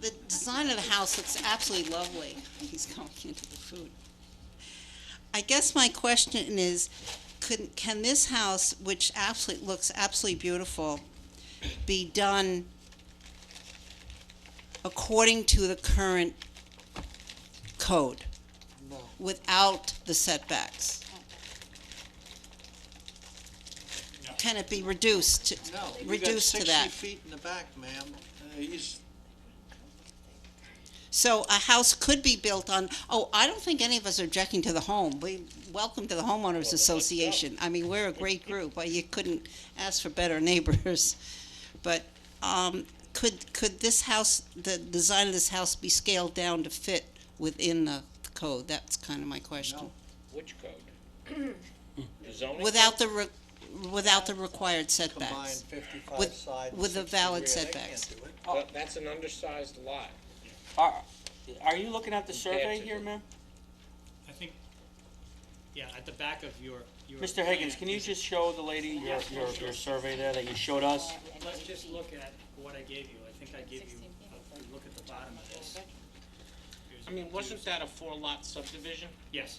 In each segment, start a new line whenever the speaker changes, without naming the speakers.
the design of the house looks absolutely lovely. He's going into the food. I guess my question is, could, can this house, which absolutely, looks absolutely beautiful, be done according to the current code?
No.
Without the setbacks? Can it be reduced? to-
No, you got
Reduced to
sixty
that.
feet in the back, ma'am. Uh, He's,
So a house could be built on, oh, I don't think any of us are objecting to the home. We, welcome to the homeowners association. I mean, we're a great group, but you couldn't ask for better neighbors. But, um, could, could this house, the design of this house be scaled down to fit within the code? That's kind of my question.
No.
Which code? The zoning?
Without the, re- without the required
combined
setbacks.
fifty-five
With-
side and
with the
sixty
valid
rear. They can't
setbacks.
do it.
That- That's an undersized lot.
Are, are you looking at the survey
to
here,
the-
ma'am?
I think, yeah, at the back of your, your.
Mr. Higgins, can you
plan,
just show the lady your, your, your survey there that you showed us?
Let's just look at what I gave you. I think I gave you, a- look at the bottom of this. Here's-
I mean, wasn't that a four-lot subdivision?
Yes,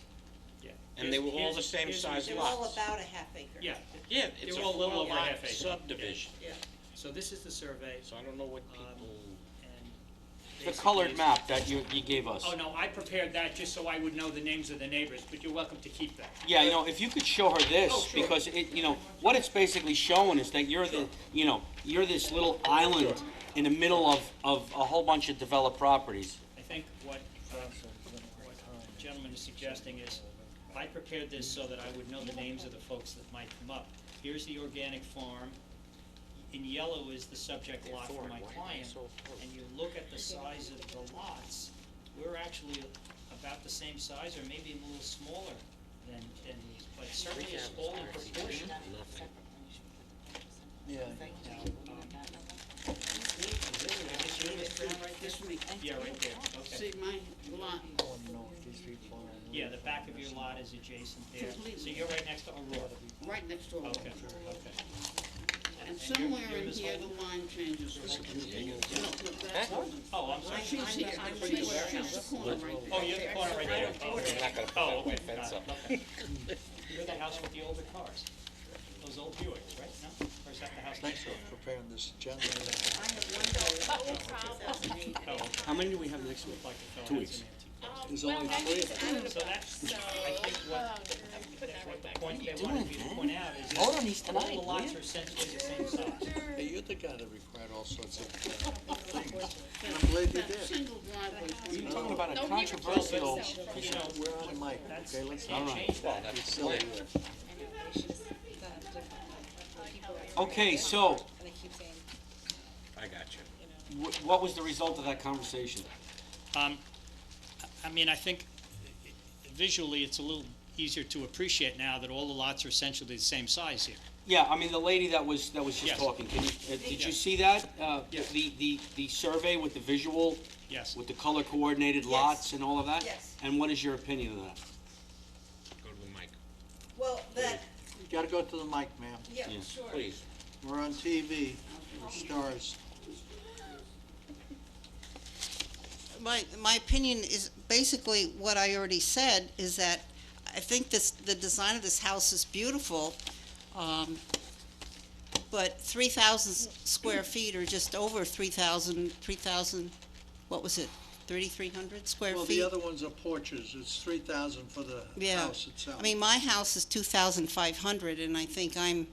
yeah.
And they were all the
Here's-
same
here's-
size
here's-
lot.
about a half acre.
Yeah,
Yeah, it's
it's
a
a little over
four-lot
half acre.
subdivision,
so this is the survey
so I don't know what people.
and.
The
basically
colored
it's-
map that you, you gave us.
Oh, no, I prepared that just so I would know the names of the neighbors, but you're welcome to keep that.
Yeah, you know, if you could show her
Oh,
this,
sure.
because it, you know, what it's basically showing is that you're the, you know, you're this little island in the middle of, of a whole bunch of developed properties.
I think what, um, what the gentleman is suggesting is, I prepared this so that I would know the names of the folks that might come up. Here's the organic farm, in yellow is the subject lot for my client, and you look at the size of the lots, we're actually about the same size or maybe a little smaller than, than these, but certainly it's all in proportion.
Yeah,
Now, um, Yeah, right there, okay.
See, my lot,
I wanna know if these people are. in
Yeah, the back of your lot is adjacent there, so
Completely.
you're right next to Aurora.
right next door.
Okay, okay.
And
you're-
somewhere
you're
in
this
here,
whole-
the line changes.
Oh, I'm sorry.
She's here, she's, she's the corner right there.
Oh, you're the corner right there.
They're
Okay.
not gonna put
Oh,
that
okay,
white fence up.
got it, okay. You're the house with the older cars, those old Buicks, right? No? Or is that the house next door?
Preparing this agenda.
Oh, okay.
How many do we have next week?
Oh, Like the fellow
Two
has
weeks.
an antique.
There's only three of them.
So that's, I think what, that's what the point they wanted me to point out is that
Hold on, he's
all the
tonight,
lots
will
are essentially the same size.
Hey, you're the guy that required all sorts of uh, things. I'm glad you
That
did.
single driveway.
You're talking about a
No, he
controversial,
replaced himself.
You know,
We're on mic,
that's,
okay, let's
all
not
right.
be silly here.
Okay, so,
And I keep saying,
I got you.
wh- what was the result of that conversation?
Um, I- I mean, I think visually, it's a little easier to appreciate now that all the lots are essentially the same size here.
Yeah, I mean, the lady that was, that was
Yes.
just talking, can you, uh, did you
Yes.
see that? Uh,
Yes.
The, the, the survey with the visual,
Yes.
with the color coordinated lots and all of that?
Yes.
And what is your opinion of that?
Go to the mic,
Well, that,
You gotta go to the mic, ma'am.
yeah,
Yeah.
sure.
please.
We're on TV, we're stars.
my, my opinion is basically what I already said, is that I think this, the design of this house is beautiful, um, but three thousand square feet or just over three thousand, three thousand, what was it, thirty-three hundred square feet?
Well, the other ones are porches, it's three thousand for the
Yeah.
house itself.
I mean, my house is two thousand five hundred, and I think I'm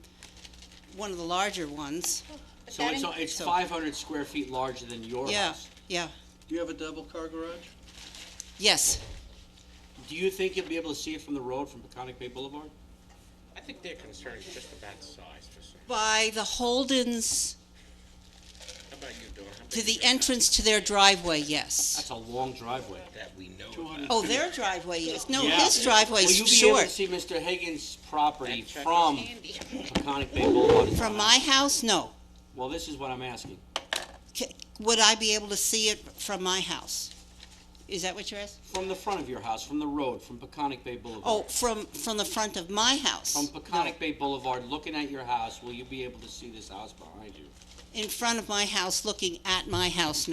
one of the larger ones,
So it's, it's
So-
five hundred square feet larger than your house?
Yeah. yeah,
Do you have a double car garage?
yes,
Do you think you'll be able to see it from the road from Peconic Bay Boulevard?
I think their concern is just about size for some,
by the Holden's,
how about you, Dawn? How
to
big is
the
your-
entrance to their driveway, yes.
That's a long driveway.
That we know
Two
about.
hundred.
Oh, their driveway is, no,
Yeah.
his driveway's
Will you be able to
short.
see Mr. Higgins' property
That check is
from Peconic Bay Boulevard?
From my house, no.
Well, this is what I'm asking.
C- Would I be able to see it from my house? Is that what you're asking?
From the front of your house, from the road, from Peconic Bay Boulevard?
Oh, from, from the front of my house?
From
No.
Peconic Bay Boulevard, looking at your house, will you be able to see this house behind you?
In front of my house, looking at my house,